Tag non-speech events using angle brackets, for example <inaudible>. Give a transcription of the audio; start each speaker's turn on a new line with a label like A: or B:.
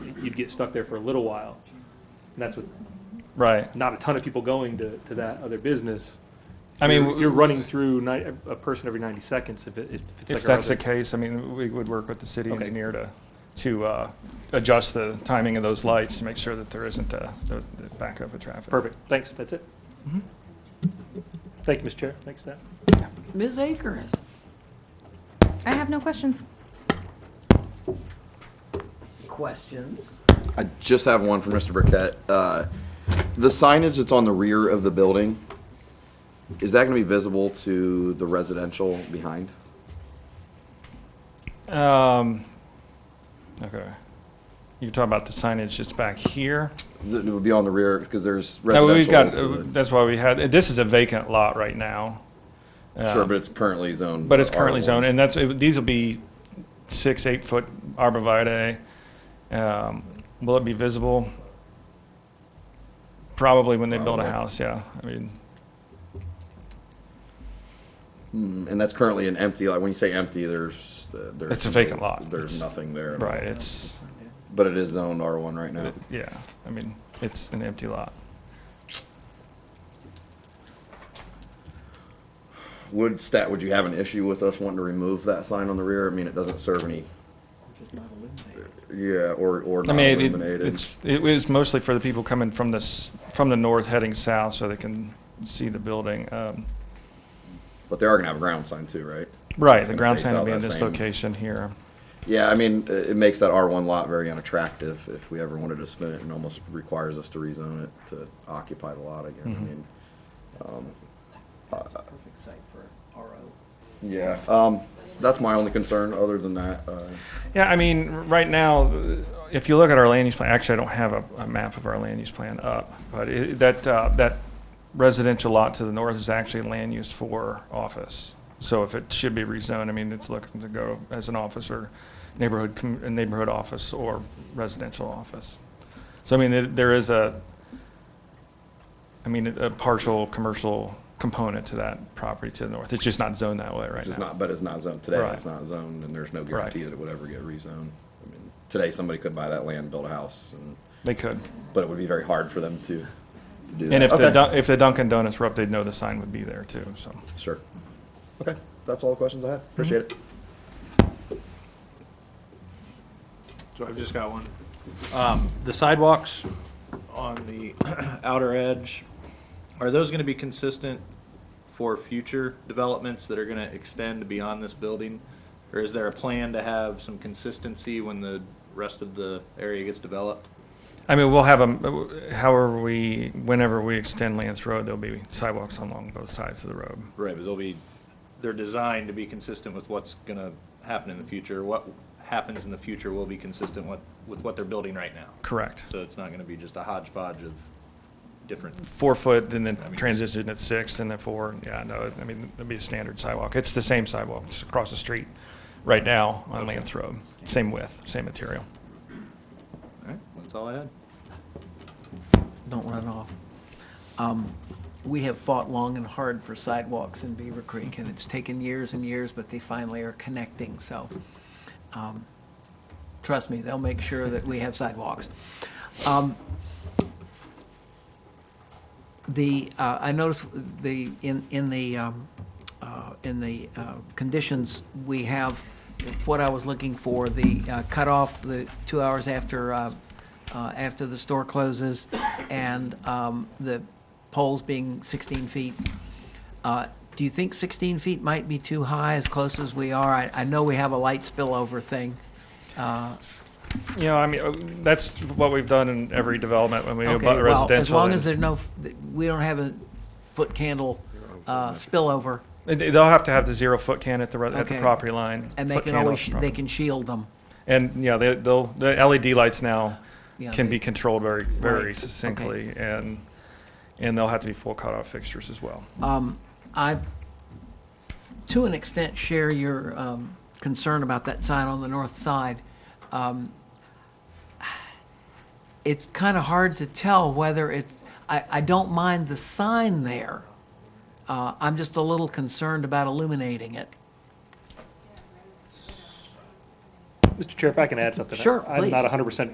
A: you'd get stuck there for a little while. And that's with
B: Right.
A: not a ton of people going to, to that other business.
B: I mean,
A: If you're running through ni- a person every ninety seconds, if it, if it's like.
B: If
A: our
B: that's the
A: other-
B: case, I mean, we would work with the city
A: Okay.
B: engineer to, to uh, adjust the timing of those lights to make sure that there isn't uh, the the backup of traffic.
A: Perfect, thanks, that's it.
B: Mm-hmm.
A: Thank you, Mr. Chair, thanks, Nat.
C: Ms. Akers?
D: I have no questions.
C: Questions?
E: I just have one for Mr. Burkett. Uh, The signage that's on the rear of the building, is that going to be visible to the residential behind?
B: Um, Okay. You're talking about the signage that's back here?
E: That would be on the rear, because there's
B: No, Oh, we've got, uh,
E: residential. to
B: that's why we had, this is a vacant lot right now.
E: the- Sure, but it's currently zoned.
B: But it's currently
E: R1.
B: zoned, and that's, it- these will be six, eight-foot arborvitae. Um, Will it be visible? Probably when they build a
E: Probably.
B: house, yeah. I mean,
E: And that's currently an empty, like, when you say empty, there's, uh, there's.
B: It's a vacant lot.
E: There's
B: It's-
E: nothing there.
B: right, it's,
E: But it is zoned R1 right now.
B: yeah, I mean, it's an empty lot.
E: Would stat, would you have an issue with us wanting to remove that sign on the rear? I mean, it doesn't serve any, yeah, or, or
B: I
E: not
B: mean, it-
E: illuminated.
B: it's, it was mostly for the people coming from the, s- from the north heading south so they can see the building. Um,
E: But they are gonna have a ground sign too, right?
B: Right,
E: It's
B: the
E: gonna
B: ground
E: face
B: sign will
E: out
B: be in
E: that
B: this
E: same-
B: location here.
E: Yeah, I mean, i- it makes that R1 lot very unattractive if we ever wanted to spin it and almost requires us to rezone it to occupy the lot again. I
B: Mm-hmm.
E: mean, um,
C: That's a perfect site for RO.
E: yeah, um, that's my only concern. Other than that, uh,
B: Yeah, I mean, r- right now, uh, if you look at our land use plan, actually, I don't have a, a map of our land use plan up, but it, that, uh, that residential lot to the north is actually land used for office. So if it should be rezoned, I mean, it's looking to go as an office or neighborhood, com- a neighborhood office or residential office. So I mean, there- there is a, I mean, a partial commercial component to that property to the north. It's just not zoned that way right now.
E: it's just not, but it's not zoned today.
B: Right.
E: It's not zoned and there's no guarantee
B: Right.
E: that it would ever get rezoned. I mean, Today, somebody could buy that land, build a house, and,
B: They could.
E: but it would be very hard for them to to do that.
B: And if the,
E: Okay.
B: Dun- if the Dunkin' Donuts were up, they'd know the sign would be there too, so.
E: Sure. Okay, that's all the questions I have. Appreciate it.
F: So I've just got one. Um, the sidewalks on the <clears throat> outer edge, are those gonna be consistent for future developments that are gonna extend beyond this building? Or is there a plan to have some consistency when the rest of the area gets developed?
B: I mean, we'll have them, however we, whenever we extend Lance Road, there'll be sidewalks along both sides of the road.
F: Right, but they'll be, they're designed to be consistent with what's gonna happen in the future. What happens in the future will be consistent with, with what they're building right now.
B: Correct.
F: So it's not gonna be just a hodgepodge of different
B: Four foot, and then transition at six, and then four, yeah, no, I mean, it'd be a standard sidewalk. It's the same sidewalk, it's across the street right now on Lance Road. Same width, same material.
F: All right, that's all I had.
C: Don't run off. Um, We have fought long and hard for sidewalks in Beaver Creek, and it's taken years and years, but they finally are connecting, so. um, Trust me, they'll make sure that we have sidewalks. Um, The, uh, I noticed the, in, in the, um, uh, in the uh, conditions, we have what I was looking for, the uh, cutoff, the two hours after, uh, uh, after the store closes, and um, the poles being 16 feet. Uh, Do you think 16 feet might be too high, as close as we are? I, I know we have a light spillover thing.
B: You know, I mean, uh, that's what we've done in every development when we do
C: Okay,
B: about
C: well,
B: residential.
C: as long
B: and-
C: as there's no, f- th- we don't have a foot candle uh, spillover,
B: And they- They'll have to have the zero foot can at the, re- at the
C: Okay.
B: property line.
C: and they
B: foot
C: can
B: can off
C: always,
B: the
C: sh-
B: property.
C: they can shield them.
B: And, yeah, they, they'll, the LED lights now
C: Yeah,
B: can
C: they-
B: be controlled very, very
C: Right,
B: succinctly, and, and they'll have to be full cutoff fixtures as well.
C: I, to an extent, share your um, concern about that sign on the north side. Um, It's kind of hard to tell whether it's, I, I don't mind the sign there. Uh, I'm just a little concerned about illuminating it.
A: Mr. Chair, if I can add something.
C: Sure,
A: I'm not
C: please.
A: hundred percent